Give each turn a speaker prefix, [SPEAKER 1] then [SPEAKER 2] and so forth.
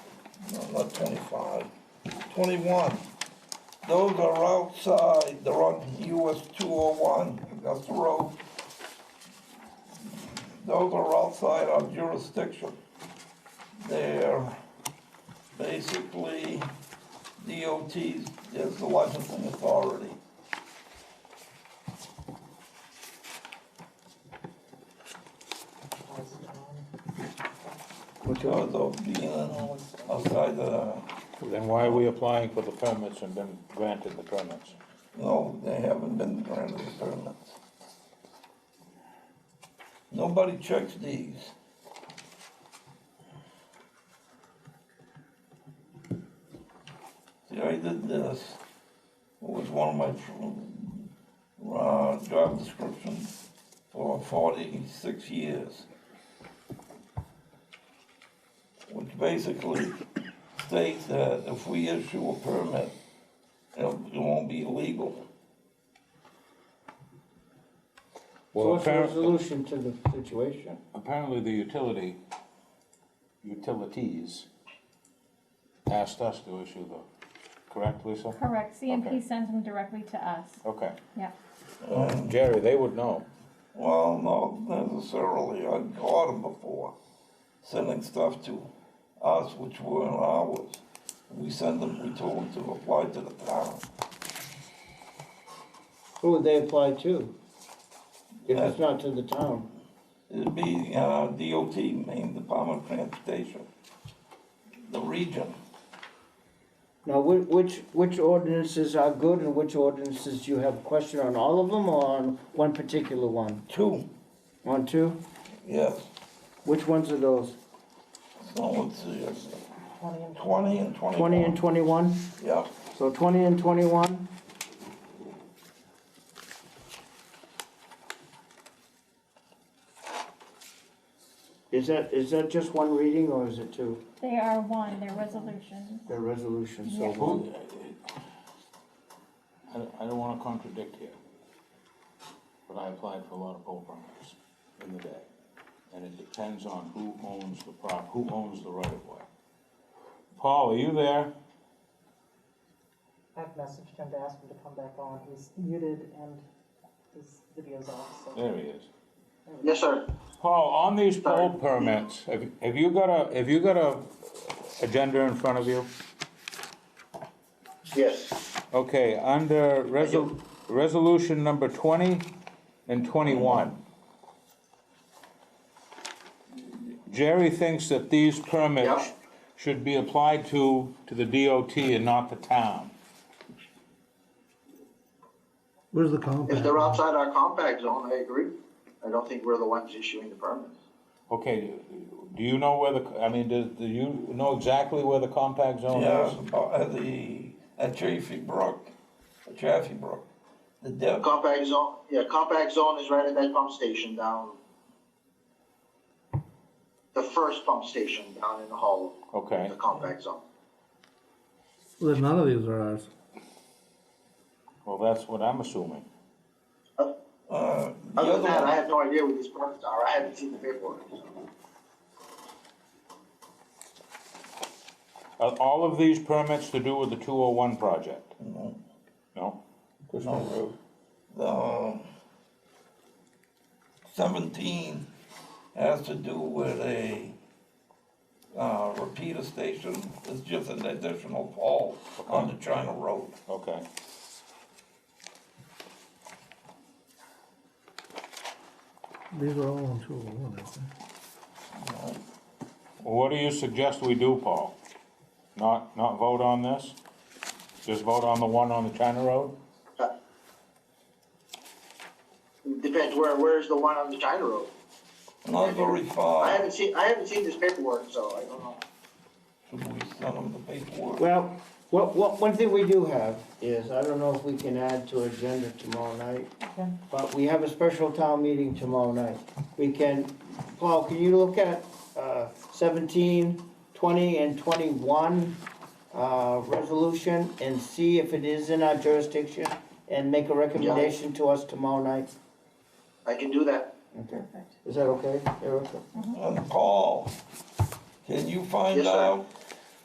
[SPEAKER 1] not twenty-five, twenty-one. Those are outside, they're on US two oh one, that's the road. Those are outside our jurisdiction. They're basically DOT's, is the licensing authority.
[SPEAKER 2] um,
[SPEAKER 1] Because of being outside the,
[SPEAKER 3] Then why are we applying for the permits and been granted the permits?
[SPEAKER 1] no, they haven't been granted the permits. Nobody checks these. See, I did this, it was one of my, fr- uh, job descriptions for forty-six years. Which basically states that if we issue a permit, it'll- it won't be legal.
[SPEAKER 3] Well,
[SPEAKER 4] So what's the
[SPEAKER 3] appar-
[SPEAKER 4] resolution to the situation?
[SPEAKER 3] Apparently, the utility, utilities asked us to issue the, correct, Lisa?
[SPEAKER 5] Correct,
[SPEAKER 3] Okay.
[SPEAKER 5] CMP sends them directly to us,
[SPEAKER 3] Okay.
[SPEAKER 5] yeah.
[SPEAKER 3] Jerry, they would know.
[SPEAKER 1] Well, not necessarily, I've caught them before, sending stuff to us, which weren't ours. We sent them, we told them to apply to the town.
[SPEAKER 4] Who would they apply to? If it's not to the town?
[SPEAKER 1] It'd be, uh, DOT, Maine Department of Transportation, the region.
[SPEAKER 4] Now, whi- which, which ordinances are good and which ordinances do you have a question on all of them or on one particular one?
[SPEAKER 1] Two,
[SPEAKER 4] On two?
[SPEAKER 1] yes,
[SPEAKER 4] Which ones are those?
[SPEAKER 1] so let's see, it's twenty and twenty-one.
[SPEAKER 4] Twenty and twenty-one?
[SPEAKER 1] Yeah,
[SPEAKER 4] So twenty and twenty-one? Is that, is that just one reading or is it two?
[SPEAKER 5] They are one, they're resolutions.
[SPEAKER 4] The resolution, so
[SPEAKER 5] Yeah.
[SPEAKER 4] one.
[SPEAKER 3] Who- I, I don't wanna contradict here, but I applied for a lot of pole permits in the day. And it depends on who owns the prop, who owns the right of way. Paul, are you there?
[SPEAKER 2] I've messaged him to ask him to come back on. He's muted and his video's off, so.
[SPEAKER 3] There he is.
[SPEAKER 6] Yes, sir.
[SPEAKER 3] Paul, on these poll permits, have, have you got a, have you got a agenda in front of you?
[SPEAKER 6] Yes.
[SPEAKER 3] Okay, under resol, resolution number twenty and twenty-one. Jerry thinks that these permits
[SPEAKER 6] Yeah.
[SPEAKER 3] should be applied to, to the DOT and not the town.
[SPEAKER 7] Where's the compact?
[SPEAKER 6] If they're outside our compact zone, I agree. I don't think we're the ones issuing the permits.
[SPEAKER 3] Okay, do you know where the, I mean, do, do you know exactly where the compact
[SPEAKER 4] Oh,
[SPEAKER 3] zone
[SPEAKER 1] yeah,
[SPEAKER 3] is?
[SPEAKER 1] at the, at Chaffee Brook, Chaffee Brook. The dev, uh,
[SPEAKER 6] Compact zone, yeah, compact zone is right at that pump station down. The first pump station down in the hall,
[SPEAKER 3] Okay.
[SPEAKER 6] the compact zone.
[SPEAKER 7] Well, then none of these are ours.
[SPEAKER 3] Well, that's what I'm assuming.
[SPEAKER 1] uh, the
[SPEAKER 6] Other
[SPEAKER 1] other
[SPEAKER 6] than that, I
[SPEAKER 1] one,
[SPEAKER 6] have no idea what these permits are. I haven't seen the paperwork. so.
[SPEAKER 3] Are all of these permits to do with the two oh one project? No?
[SPEAKER 1] no, Um, the seventeen has to do with a, uh, repeater station, it's just an additional pole on the China Road.
[SPEAKER 3] Okay.
[SPEAKER 7] These are all on two oh one, I think.
[SPEAKER 3] Well, What do you suggest we do, Paul? Not, not vote on this? Just vote on the one on the China Road?
[SPEAKER 6] It Depends where, where's the one on the China Road?
[SPEAKER 1] Not very
[SPEAKER 6] I
[SPEAKER 1] far,
[SPEAKER 6] haven't seen, I haven't seen this paperwork, so I don't know.
[SPEAKER 1] should we send them the paperwork?
[SPEAKER 4] Well, what, what, one thing we do have is, I don't know if we can add to agenda tomorrow night,
[SPEAKER 2] Okay.
[SPEAKER 4] but we have a special town meeting tomorrow night. We can, Paul, can you look at, uh, seventeen, twenty, and twenty-one, uh, resolution and see if it is in our jurisdiction and make a recommendation to us tomorrow night?
[SPEAKER 6] I can do that.
[SPEAKER 4] Okay.
[SPEAKER 5] Perfect.
[SPEAKER 4] Is that okay, Erica?
[SPEAKER 1] And Paul, can you find
[SPEAKER 6] Yes, sir.
[SPEAKER 1] out